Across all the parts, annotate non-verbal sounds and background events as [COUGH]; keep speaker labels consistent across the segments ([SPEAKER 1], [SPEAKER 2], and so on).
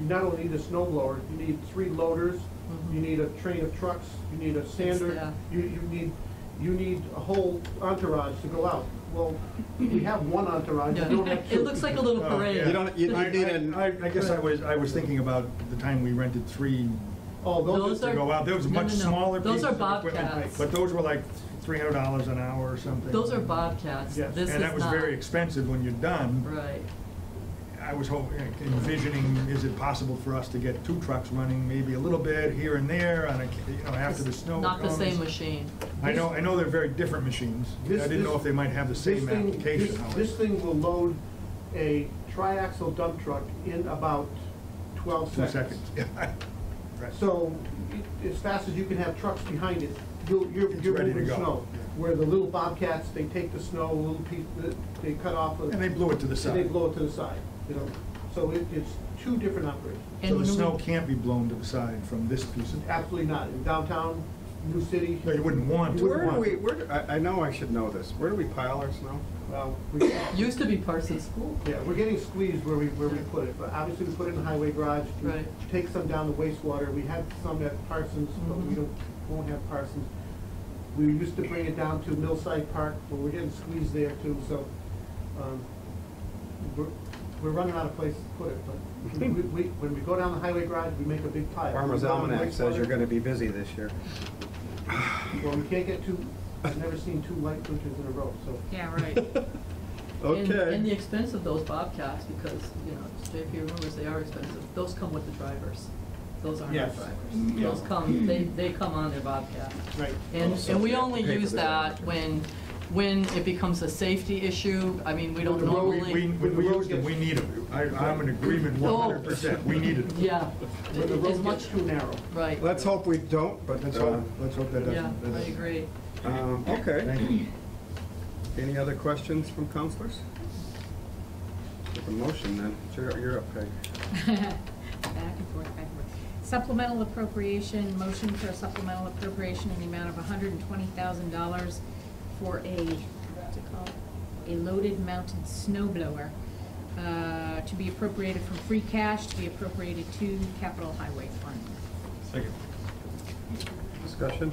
[SPEAKER 1] you not only need a snow blower, you need three loaders, you
[SPEAKER 2] Mhm.
[SPEAKER 1] need a train of trucks, you need a sander,
[SPEAKER 2] yeah.
[SPEAKER 1] you, you need, you need a whole entourage to go out. Well, we have one entourage, we don't
[SPEAKER 2] Yeah.
[SPEAKER 1] have two.
[SPEAKER 2] [LAUGHS] It looks like a little
[SPEAKER 3] Oh,
[SPEAKER 2] parade.
[SPEAKER 3] yeah.
[SPEAKER 4] You don't- you-
[SPEAKER 3] I,
[SPEAKER 4] you need an-
[SPEAKER 3] I, I- I guess I was, I was thinking about the time we rented three
[SPEAKER 1] Oh,
[SPEAKER 2] Those
[SPEAKER 1] those
[SPEAKER 2] are-
[SPEAKER 1] are,
[SPEAKER 3] to go out, there was
[SPEAKER 2] No,
[SPEAKER 3] much
[SPEAKER 2] no, no.
[SPEAKER 3] smaller
[SPEAKER 2] Those
[SPEAKER 3] pieces
[SPEAKER 2] are
[SPEAKER 3] of equipment,
[SPEAKER 2] Bobcats.
[SPEAKER 3] But those were like three hundred dollars an hour or something.
[SPEAKER 2] Those are Bobcats.
[SPEAKER 1] Yes.
[SPEAKER 2] This is
[SPEAKER 3] And that was
[SPEAKER 2] not.
[SPEAKER 3] very expensive when you're done.
[SPEAKER 2] Right.
[SPEAKER 3] I was hoping, envisioning, is it possible for us to get two trucks running, maybe a little bit here and there on a, you know, after the
[SPEAKER 2] It's
[SPEAKER 3] snow
[SPEAKER 2] Not the
[SPEAKER 3] comes?
[SPEAKER 2] same machine.
[SPEAKER 3] I know, I know they're very different machines. I
[SPEAKER 1] This-
[SPEAKER 3] didn't know
[SPEAKER 1] this-
[SPEAKER 3] if they might have the
[SPEAKER 1] this
[SPEAKER 3] same
[SPEAKER 1] thing,
[SPEAKER 3] application.
[SPEAKER 1] this,
[SPEAKER 3] however.
[SPEAKER 1] this thing will load a triaxle dump truck in about twelve
[SPEAKER 3] Two
[SPEAKER 1] seconds.
[SPEAKER 3] seconds. Yeah. [LAUGHS] Right.
[SPEAKER 1] So, it- as fast as you can have trucks behind it, you'll- you're,
[SPEAKER 3] It's
[SPEAKER 1] you're
[SPEAKER 3] ready to
[SPEAKER 1] moving
[SPEAKER 3] go.
[SPEAKER 1] snow.
[SPEAKER 3] Yeah.
[SPEAKER 1] Where the little bobcats, they take the snow, little piece, they cut off, a-
[SPEAKER 3] And they
[SPEAKER 1] and
[SPEAKER 3] blew it to the
[SPEAKER 1] they
[SPEAKER 3] side.
[SPEAKER 1] blow it to the side, you know? So it, it's two different operations.
[SPEAKER 3] So
[SPEAKER 2] And
[SPEAKER 3] the
[SPEAKER 2] when
[SPEAKER 3] snow
[SPEAKER 2] we-
[SPEAKER 3] can't be blown to the side from this piece of,
[SPEAKER 1] Absolutely not. In downtown, New City,
[SPEAKER 3] no, you wouldn't want to.
[SPEAKER 4] Where do we, where, do- I, I know I should know this, where do we pile our snow?
[SPEAKER 1] well, we,
[SPEAKER 2] Used to be Parsons School.
[SPEAKER 1] yeah, we're getting squeezed where we, where we put it. But obviously, we put it in the highway garage. We
[SPEAKER 2] Right.
[SPEAKER 1] Take some down the wastewater. We had some at Parsons, but we
[SPEAKER 2] Mhm.
[SPEAKER 1] don't, won't have Parsons. We used to bring it down to Millside Park, but we're getting squeezed there too, so, um, we're, we're running out of place to put it, but we, we, when we go down the highway garage, we make a big pile.
[SPEAKER 4] Mm-hmm. Farmer's
[SPEAKER 1] We go down the
[SPEAKER 4] Almanac says
[SPEAKER 1] wastewater.
[SPEAKER 4] you're gonna be busy this year.
[SPEAKER 1] Well, we can't get two, I've never seen two light winters in a row, so.
[SPEAKER 5] Yeah,
[SPEAKER 4] [LAUGHS]
[SPEAKER 5] right. [LAUGHS]
[SPEAKER 2] And- And the
[SPEAKER 4] Okay.
[SPEAKER 2] expense of those Bobcats, because, you know, it's JP rumors, they are expensive, those come with the drivers. Those aren't our
[SPEAKER 1] Yes.
[SPEAKER 2] drivers. Those come, they, they come on their Bobcat.
[SPEAKER 1] Right.
[SPEAKER 2] And,
[SPEAKER 4] Oh, so
[SPEAKER 2] and we
[SPEAKER 4] you have to
[SPEAKER 2] only
[SPEAKER 4] pay for
[SPEAKER 2] use
[SPEAKER 4] the
[SPEAKER 2] that
[SPEAKER 4] driver.
[SPEAKER 2] when, when it becomes a safety issue. I mean, we don't
[SPEAKER 1] Well,
[SPEAKER 3] We, we,
[SPEAKER 2] normally.
[SPEAKER 3] when we use them, we need them. I, I'm in agreement one hundred percent, we needed them.
[SPEAKER 2] Oh. Yeah.
[SPEAKER 1] Where the
[SPEAKER 2] It- It's
[SPEAKER 1] road
[SPEAKER 2] much,
[SPEAKER 1] gets too narrow.
[SPEAKER 2] right.
[SPEAKER 4] Let's hope we don't, but,
[SPEAKER 3] Let's
[SPEAKER 4] uh,
[SPEAKER 3] hope, let's hope that
[SPEAKER 2] Yeah,
[SPEAKER 3] doesn't. that
[SPEAKER 2] I
[SPEAKER 3] doesn't-
[SPEAKER 2] agree.
[SPEAKER 4] um, okay.
[SPEAKER 3] Thank you.
[SPEAKER 4] Any other questions from counselors? Take a motion then, you're, you're up, Peg.
[SPEAKER 5] Back and forth, back and forth. Supplemental appropriation, motion for a supplemental appropriation in the amount of hundred and twenty thousand dollars for a, what's it called? A loaded mounted snow blower, uh, to be appropriated from free cash, to be appropriated to capital highway fund.
[SPEAKER 3] Second.
[SPEAKER 4] Discussion,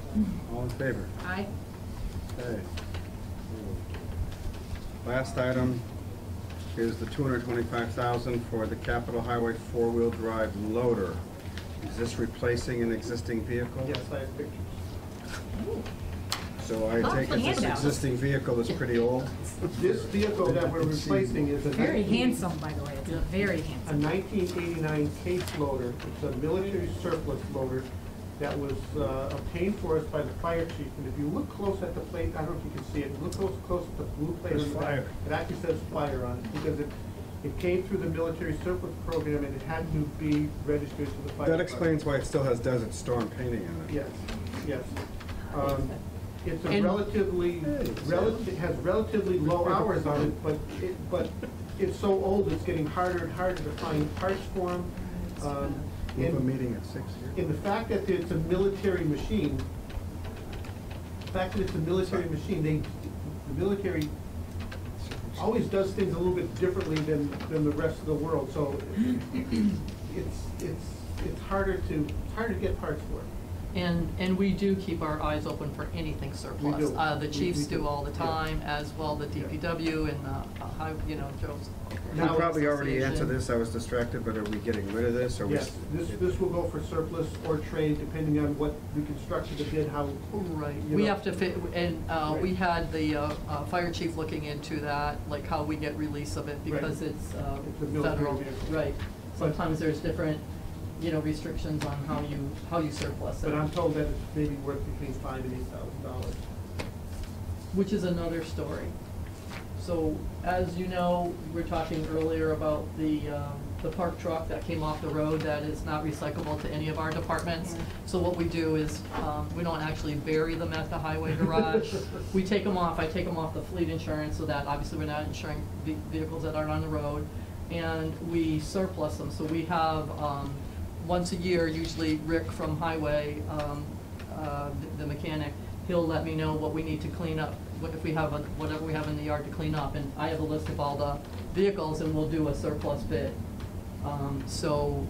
[SPEAKER 4] all in favor?
[SPEAKER 5] Aye?
[SPEAKER 4] Okay. Last item is the two hundred twenty-five thousand for the Capitol Highway four-wheel drive loader. Is this replacing an existing vehicle?
[SPEAKER 1] Yes, I have pictures.
[SPEAKER 4] So I take it this
[SPEAKER 5] Lots of handouts.
[SPEAKER 4] existing vehicle is pretty old?
[SPEAKER 1] This vehicle that we're replacing is a.
[SPEAKER 5] Very
[SPEAKER 1] 19
[SPEAKER 5] handsome, by the way, it's a very
[SPEAKER 1] A
[SPEAKER 5] handsome.
[SPEAKER 1] 1989 case loader. It's a military surplus loader that was uh, obtained for us by the fire chief. And if you look close at the plate, I don't know if you can see it, look close, close at the blue plate. on
[SPEAKER 3] There's
[SPEAKER 1] the back.
[SPEAKER 3] fire.
[SPEAKER 1] It actually says fire on it because it, it came through the military surplus program and it had to be registered to the fire.
[SPEAKER 4] That
[SPEAKER 1] department.
[SPEAKER 4] explains why it still has Desert Storm painting on it.
[SPEAKER 1] Yes, yes. Um, It's a
[SPEAKER 2] And-
[SPEAKER 1] relatively, relative, has relatively low hours on it, but it, but it's so old, it's getting harder and harder to find parts for them.
[SPEAKER 4] We have a
[SPEAKER 1] And,
[SPEAKER 4] meeting at six here.
[SPEAKER 1] and the fact that it's a military machine, the fact that it's a military machine, they, the military always does things a little bit differently than, than the rest of the world, so it's, it's, it's harder to, it's harder to get parts for it.
[SPEAKER 2] And, and we do keep our eyes open for anything surplus.
[SPEAKER 1] do.
[SPEAKER 2] Uh, the
[SPEAKER 1] We-
[SPEAKER 2] chiefs
[SPEAKER 1] we do.
[SPEAKER 2] do all the
[SPEAKER 1] Yeah.
[SPEAKER 2] time, as well the
[SPEAKER 1] Yeah.
[SPEAKER 2] DPW and the, uh, high- you know, Joe's.
[SPEAKER 4] You
[SPEAKER 1] Now-
[SPEAKER 4] probably already
[SPEAKER 2] Association.
[SPEAKER 4] answered this, I was distracted, but are we getting rid of this or we?
[SPEAKER 1] Yes, this, this will go for surplus or trade, depending on what we constructed the bid, how,
[SPEAKER 2] Right,
[SPEAKER 1] You
[SPEAKER 2] we
[SPEAKER 1] know.
[SPEAKER 2] have to fit, and, uh, we
[SPEAKER 1] Right.
[SPEAKER 2] had the, uh, uh, fire chief looking into that, like how we get release of it, because
[SPEAKER 1] Right.
[SPEAKER 2] it's, uh,
[SPEAKER 1] It's a military
[SPEAKER 2] federal,
[SPEAKER 1] vehicle.
[SPEAKER 2] right. Sometimes there's different, you know, restrictions on how you, how you surplus it.
[SPEAKER 1] but I'm told that it's maybe worth between five and eight thousand dollars.
[SPEAKER 2] which is another story. So, as you know, we were talking earlier about the, um, the park truck that came off the road that is not recyclable to any of our departments.
[SPEAKER 5] Yeah.
[SPEAKER 2] So what we do is, um, we don't actually bury them at the highway garage. We take them off, I take them off the fleet insurance, so that obviously we're not insuring ve- vehicles that aren't on the road. And we surplus them, so we have, um, once a year, usually Rick from Highway, um, uh, the mechanic, he'll let me know what we need to clean up, what if we have, a- whatever we have in the yard to clean up, and I have a list of all the vehicles, and we'll do a surplus bid. Um, So,